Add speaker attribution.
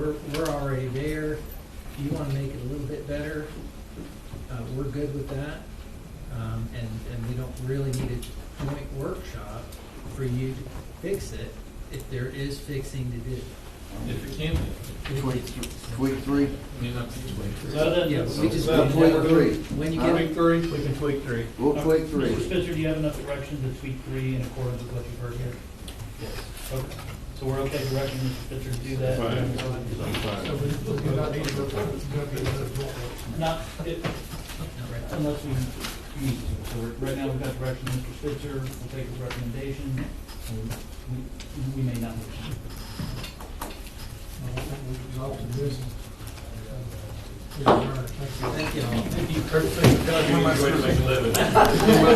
Speaker 1: We're, we're already there. If you want to make it a little bit better, uh, we're good with that. Um, and, and we don't really need a joint workshop for you to fix it if there is fixing to do.
Speaker 2: If it can be,
Speaker 3: Tweak, th- tweak three,
Speaker 2: I mean, not to wait.
Speaker 1: Yeah, but we just.
Speaker 4: Well,
Speaker 1: need to
Speaker 3: tweak
Speaker 1: know
Speaker 3: three.
Speaker 1: When you
Speaker 3: Huh?
Speaker 1: get,
Speaker 2: three? We can tweak three.
Speaker 3: we'll tweak
Speaker 4: Mr.
Speaker 3: three.
Speaker 4: Spitzer, do you have enough direction to tweak three in accordance with what you've heard here?
Speaker 2: Yes.
Speaker 4: Okay, so we're okay directing Mr. Spitzer to do that?
Speaker 5: So we we do not need to, it's gonna be another vote.
Speaker 4: Not, it- unless we need to, so we're- right now we've got direction from Mr. Spitzer, we'll take his recommendation, and we- we may not.
Speaker 5: Exhausted business. Uh, we are, thank you.
Speaker 1: thank you all.
Speaker 2: Perfect. Thank you. Enjoy to make a living.